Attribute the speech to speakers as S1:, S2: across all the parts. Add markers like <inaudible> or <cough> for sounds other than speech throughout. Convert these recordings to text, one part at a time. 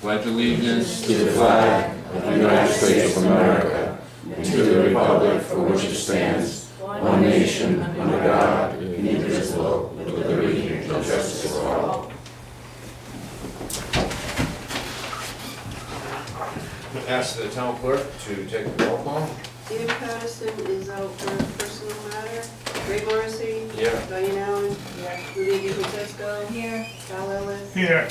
S1: pledge allegiance
S2: to the flag of the United States of America and to the republic for which it stands, one nation, under God, indivisible, with liberty and justice for all.
S3: Ask the town clerk to take the roll call.
S4: David Patterson is out for a personal matter. Ray Morrissey.
S3: Yeah.
S4: Diane Allen. Lydia DeFrancisco. Here. Val Ellis.
S5: Here,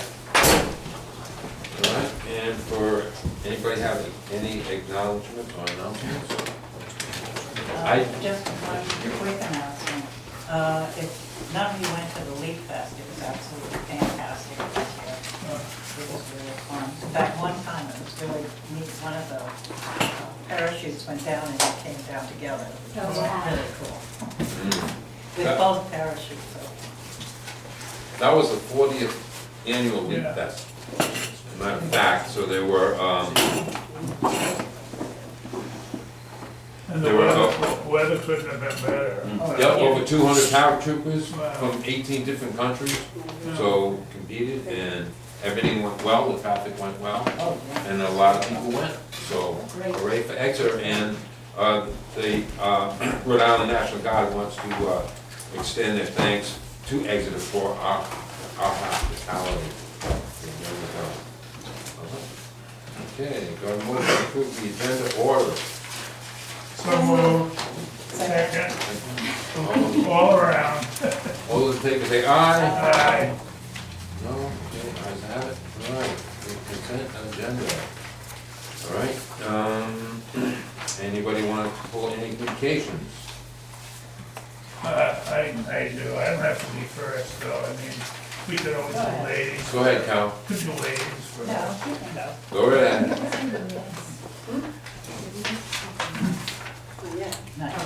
S3: All right, and for, anybody have any acknowledgement or announcements? I-
S6: Uh, Just one quick announcement. Uh, If none of you went to the Leap Fest, it was absolutely fantastic this year. It was really fun. In fact, one time it was really neat, one of the uh, parachutes went down and it came down together. It was really cool.
S2: Hmm.
S3: Uh,
S6: With both parachutes open.
S3: That was the fortieth annual Leap
S5: Yeah.
S3: Fest. As a Matter of fact, so there were, um,
S5: and the
S3: They were Mm.
S5: weather,
S3: helpful.
S5: weather couldn't have been better.
S3: yeah, over two hundred paratroopers
S5: Oh, Wow.
S3: from eighteen different countries. So competed and everything went well, the traffic went well.
S6: Oh, yeah.
S3: and a lot of people went, so hooray for Exeter, and uh, the uh, <clears throat> Rhode Island National Guard wants to uh, extend their thanks to Exeter for our, our hospitality. Uh-huh. Okay, go and move to approve the agenda order.
S5: So moved, second,
S3: All-
S5: all around,
S3: All those in favor say aye.
S5: aye.
S3: No, okay, ayes have it, all right, the consent agenda. All right, um, <clears throat> anybody want to pull any communications?
S5: Uh, I, I do, I don't have to be first, though, I mean, we could always
S6: Go
S5: do
S6: ahead.
S5: ladies,
S3: Go ahead, Cal.
S5: could do ladies for.
S6: No, you can go.
S3: Go right ahead.
S4: Oh, yeah.
S6: Nice.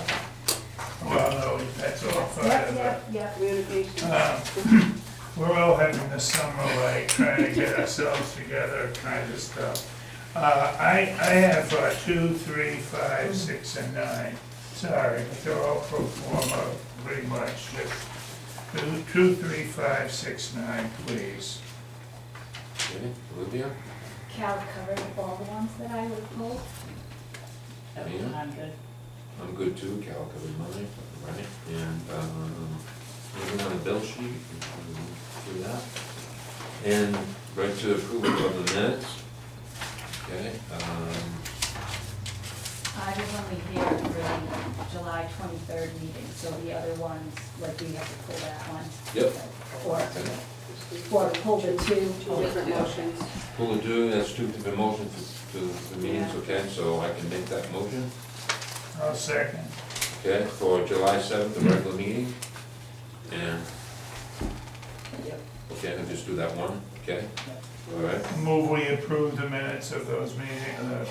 S5: Well, no, that's all part of it.
S4: Communication.
S7: Uh,
S5: Um, <clears throat> We're all having the summer like trying to get ourselves together kind of stuff. Uh, I, I have uh, two, three, five, six, and nine. Sorry, but they're all pro forma, pretty much, just two, two, three, five, six, nine, please.
S3: Okay, Olivia?
S7: Cal covered up all the ones that I would pull.
S3: Yeah.
S6: I'm good.
S3: I'm good too, Cal, covered mine, right? And, um, moving on the bill sheet, we can do that. And right to approval of the minutes. Okay, um,
S7: I was only here for the July twenty-third meeting, so the other ones, like, we have to pull that one.
S3: Yep.
S7: Or, or pull the two.
S4: Two different motions.
S3: who will do, that's two different motions to, to the meetings, okay? So I can make that motion,
S5: I'll second.
S3: okay, for July seventh, the regular meeting. And,
S6: Yep.
S3: okay, I'll just do that one, okay? All right.
S5: Move we approve the minutes of those meetings, uh,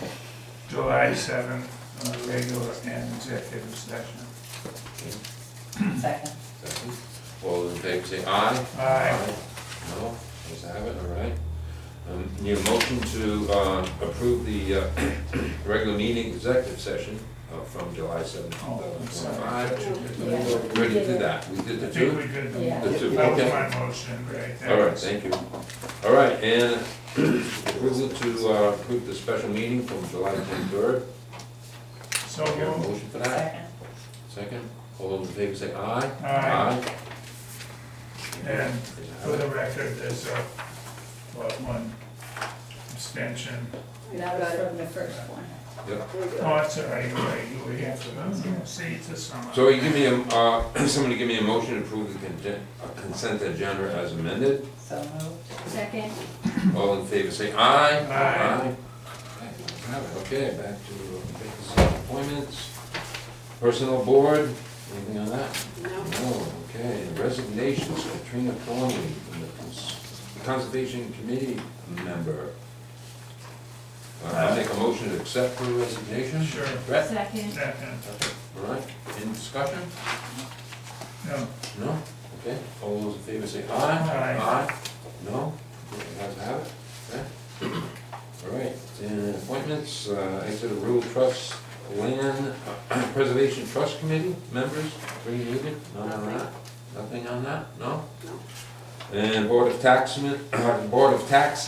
S5: July seventh, uh, regular and executive session.
S6: Second.
S3: Second. All those in favor say aye.
S5: Aye.
S3: No, let's have it, all right. Um, Need a motion to uh, approve the uh, <clears throat> regular meeting executive session uh, from July seventh, two
S5: Oh, I'm
S3: thousand
S5: sorry.
S3: twenty-five.
S7: Yeah.
S3: We already did that, we did
S5: I
S3: the
S5: think
S3: two.
S5: we did
S7: Yeah.
S5: the
S3: The two,
S5: That was
S3: okay.
S5: my motion, right there.
S3: All right, thank you. All right, and approval to uh, approve the special meeting from July twenty-third.
S5: So
S3: Get a
S5: moved.
S3: motion for that?
S6: Second.
S3: Second. All those in favor say aye.
S5: Aye.
S3: Aye.
S5: And
S3: Let's have
S5: For
S3: it.
S5: the record, there's a, what, one abstention.
S7: That was from the first one.
S4: There we go.
S5: Oh, it's all right, you were, you were here for those, see, it's a summer.
S3: So you give me a, uh, <clears throat> somebody give me a motion to approve the congen- uh, consent agenda as amended.
S6: So moved.
S7: Second,
S3: All in favor, say aye.
S5: Aye.
S3: Aye. Have it. Okay, back to uh, vacancy appointments. Personnel board, anything on that?
S4: No.
S3: No, okay. Resignations, Katrina Thornley, the cons- Conservation Committee member. Uh, I make a motion to accept her resignation.
S5: Sure.
S3: Brett,
S7: second,
S5: Second,
S3: all right, in discussion?
S5: no,
S3: No? Okay, all those in favor say aye.
S5: Aye.
S3: No? Okay, Ayes have it, okay? All right, and appointments, uh, Exeter Rural Trust Land <clears throat> Preservation Trust Committee members, three needed, none on that? Nothing on that, no?
S4: No.
S3: And uh, Board of Taxman, Board of Tax